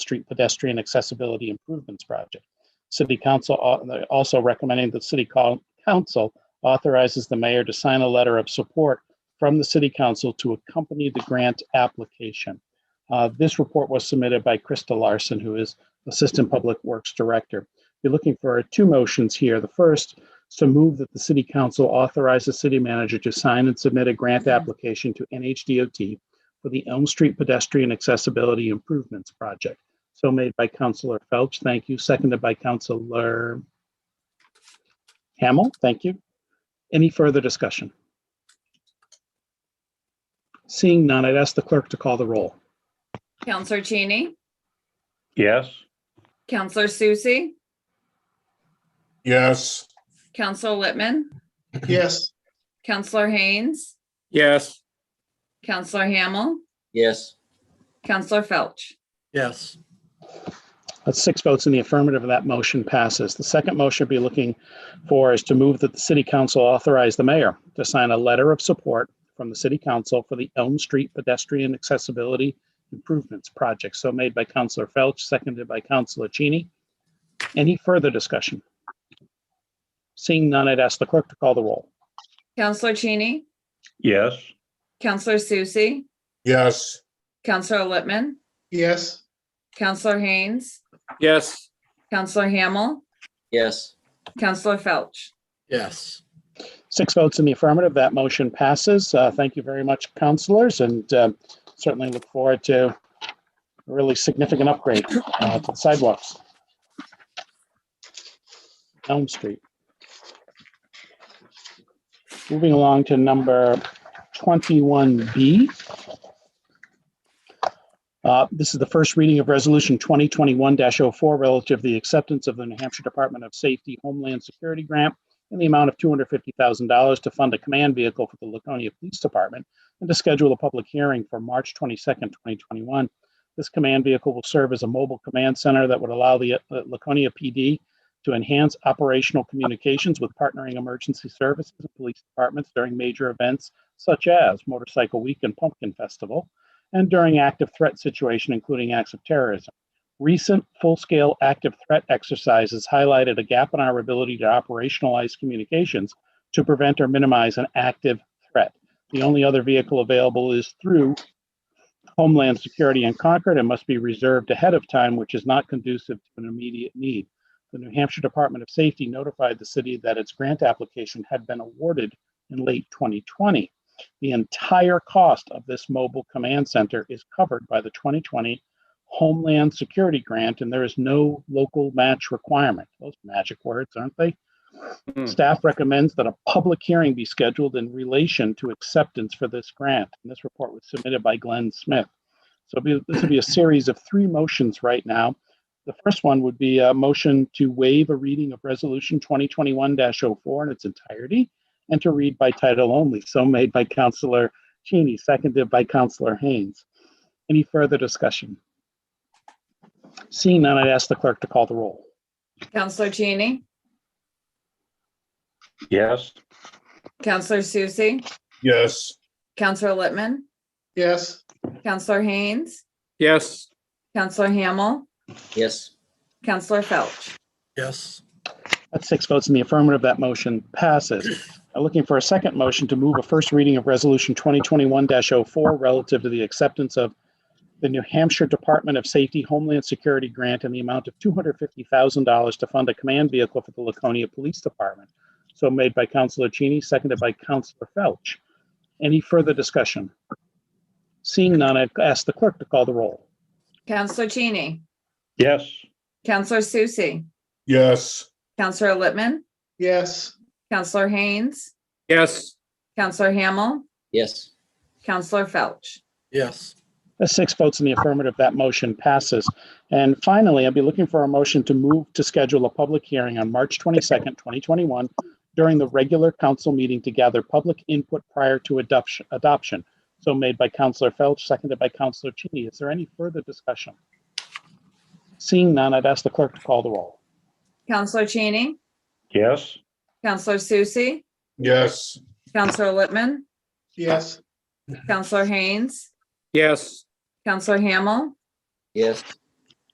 Street Pedestrian Accessibility Improvements Project. City Council au- also recommending that City Col- Council authorizes the mayor to sign a letter of support from the City Council to accompany the grant application. Uh, This report was submitted by Krista Larson, who is Assistant Public Works Director. You're looking for two motions here. The first is to move that the City Council authorize the city manager to sign and submit a grant application to NHDOT for the Elm Street Pedestrian Accessibility Improvements Project. So made by Councilor Felch, thank you. Seconded by Councilor Hamel, thank you. Any further discussion? Seeing none, I'd ask the clerk to call the roll. Counselor Cheney, Yes. Counselor Susie, Yes. Counselor Littman, Yes. Counselor Haynes, Yes. Counselor Hamel, yes, Counselor Felch. Yes. That's six votes in the affirmative, and that motion passes. The second motion we'll be looking for is to move that the city council authorize the mayor to sign a letter of support from the city council for the Elm Street Pedestrian Accessibility Improvements Project. So made by Councilor Felch, seconded by Councilor Cheney. Any further discussion? Seeing none, I'd ask the clerk to call the roll. Counselor Cheney, Yes. Counselor Susie, Yes. Counselor Littman, Yes. Counselor Haynes, Yes. Counselor Hamel, yes, Counselor Felch. Yes. Six votes in the affirmative, that motion passes. Uh, Thank you very much, counselors, and um, certainly look forward to a really significant upgrade uh, to the sidewalks. Elm Street. Moving along to number 21B. Uh, This is the first reading of Resolution 2021-04 relative to the acceptance of the New Hampshire Department of Safety Homeland Security Grant in the amount of $250,000 to fund a command vehicle for the Laconia Police Department and to schedule a public hearing for March 22nd, 2021. This command vehicle will serve as a mobile command center that would allow the uh, Laconia PD to enhance operational communications with partnering emergency services and police departments during major events such as Motorcycle Week and Pumpkin Festival, and during active threat situation, including acts of terrorism. Recent full-scale active threat exercises highlighted a gap in our ability to operationalize communications to prevent or minimize an active threat. The only other vehicle available is through Homeland Security in Concord and must be reserved ahead of time, which is not conducive to an immediate need. The New Hampshire Department of Safety notified the city that its grant application had been awarded in late 2020. The entire cost of this mobile command center is covered by the 2020 Homeland Security Grant, and there is no local match requirement. Those magic words, aren't they? Hmm. Staff recommends that a public hearing be scheduled in relation to acceptance for this grant. And this report was submitted by Glenn Smith. So it'll be- this will be a series of three motions right now. The first one would be a motion to waive a reading of Resolution 2021-04 in its entirety and to read by title only. So made by Counselor Cheney, seconded by Counselor Haynes. Any further discussion? Seeing none, I'd ask the clerk to call the roll. Counselor Cheney, Yes. Counselor Susie, Yes. Counselor Littman, Yes. Counselor Haynes, Yes. Counselor Hamel, yes, Counselor Felch. Yes. That's six votes in the affirmative. That motion passes. I'm looking for a second motion to move a first reading of Resolution 2021-04 relative to the acceptance of the New Hampshire Department of Safety Homeland Security Grant in the amount of $250,000 to fund a command vehicle for the Laconia Police Department. So made by Counselor Cheney, seconded by Counselor Felch. Any further discussion? Seeing none, I'd ask the clerk to call the roll. Counselor Cheney, Yes. Counselor Susie, Yes. Counselor Littman, Yes. Counselor Haynes, Yes. Counselor Hamel, yes, Counselor Felch. Yes. The six votes in the affirmative, that motion passes. And finally, I'll be looking for a motion to move to schedule a public hearing on March 22nd, 2021, during the regular council meeting to gather public input prior to adoption. adoption. So made by Counselor Felch, seconded by Counselor Cheney. Is there any further discussion? Seeing none, I'd ask the clerk to call the roll. Counselor Cheney, Yes. Counselor Susie, Yes. Counselor Littman, Yes. Counselor Haynes, Yes. Counselor Hamel, yes,